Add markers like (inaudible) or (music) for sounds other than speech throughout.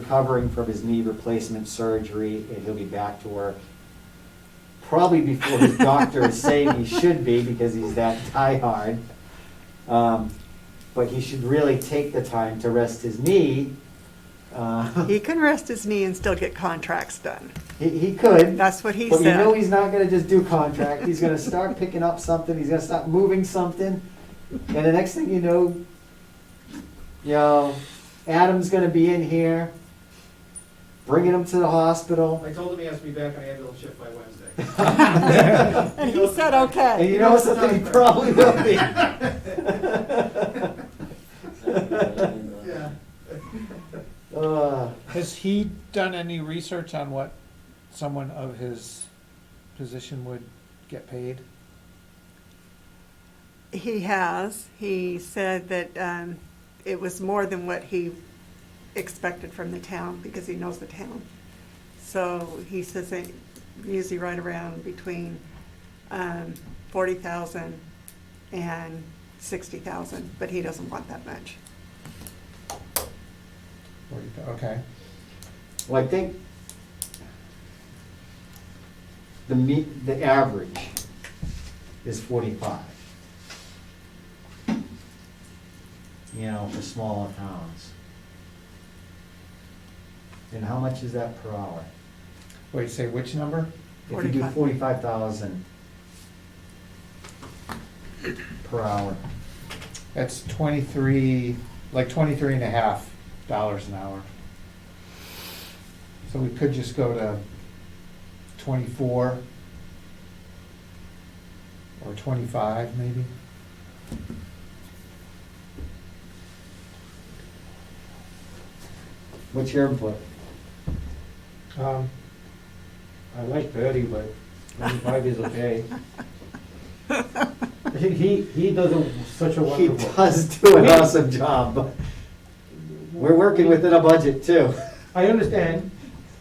recovering from his knee replacement surgery, and he'll be back to work probably before his doctor is saying he should be, because he's that (laughs) diehard. Um, But he should really take the time to rest his knee. Uh, (laughs) He can rest his knee and still get contracts done. He, he could. That's what he But you know said. he's not gonna just do contract, he's gonna start (laughs) picking up something, he's gonna start moving something, and the next thing you know, you know, Adam's gonna be in here, bringing him to the (laughs) hospital. (laughs) I told him he has to be back on ambulance shift by Wednesday. (laughs) And he said, And (laughs) okay. you know something, he probably will be. (laughs) Yeah. Uh, Has he done any research on what someone of his position would get paid? He has. He said that um, it was more than what he expected from the town because he knows the town. So he says that usually right around between um, 40,000 and 60,000, but he doesn't want that much. Or you go, Okay, Well, I think the me, the average is forty-five. You know, for smaller towns. And how much is that per hour? wait, say which number? If you do 45. forty-five thousand per hour, That's twenty-three, like twenty-three and a half dollars an hour. So we could just go to twenty-four or twenty-five maybe? what's your input? Um, I like Bertie, but twenty-five (laughs) is okay. He, he, he does a, such a He wonderful. does do an awesome job, but we're working within a budget too. (laughs) I understand,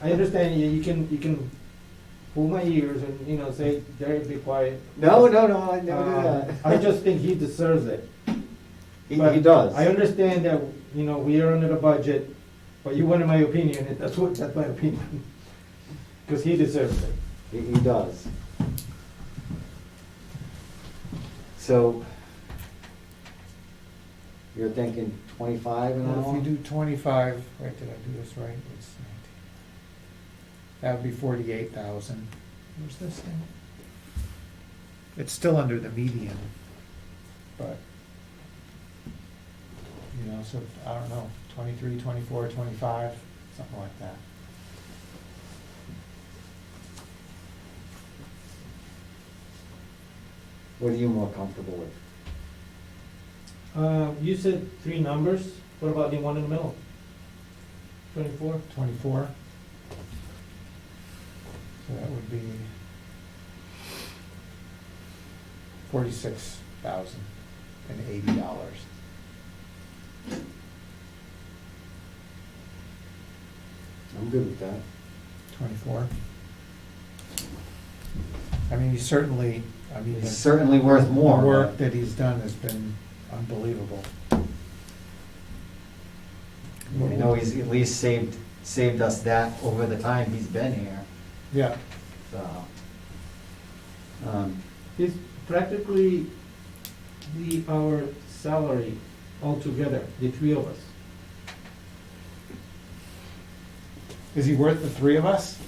I understand, you, you can, you can pull my ears and, you know, say, Derek, be quiet. No, no, no, I never do Uh, that. I just think he deserves it. (laughs) He, But he does. I understand that, you know, we are under the budget, but you wanted my opinion, and that's what, that's my opinion. (laughs) Cause he deserves it. He, he does. So you're thinking twenty-five an Well, hour? if you do twenty-five, wait, did I do this right? It's nineteen. That would be forty-eight thousand. Where's this thing? It's still under the median, but, you know, so, I don't know, twenty-three, twenty-four, twenty-five, something like that. What are you more comfortable with? Uh, you said three numbers, what about the one in the middle? Twenty-four? Twenty-four? So that would be forty-six thousand and eighty dollars. I'm good with that. 24. I mean, he's certainly, I mean, It's the certainly worth the more. work that he's done has been unbelievable. You know, he's at least saved, saved us that over the time he's been here, Yeah, so. Um, It's practically the, our salary altogether, the three of us. is he worth the three of us?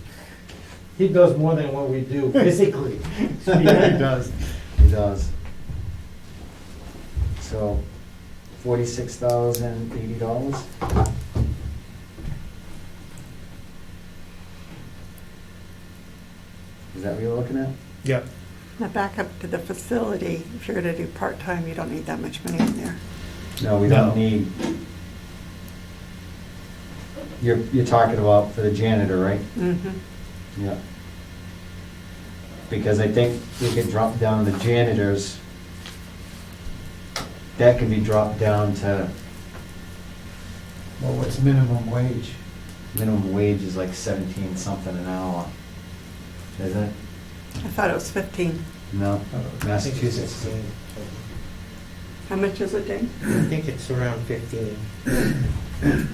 He does more than what we do (laughs) physically. does. He does. So forty-six thousand eighty dollars? Is that what you're looking at? Yep. Now back up to the facility, if you're gonna do part-time, you don't need that much money in there. No, we No. don't need. You're, you're talking about for the janitor, right? Mhm. Yeah. Because I think we could drop down the janitors. That can be dropped down to Well, what's minimum wage? minimum wage is like seventeen something an hour. Is it? I thought it was fifteen. No, Oh, I don't know. I think it's Massachusetts. 16. How much is it, Dave? I think it's around fifteen.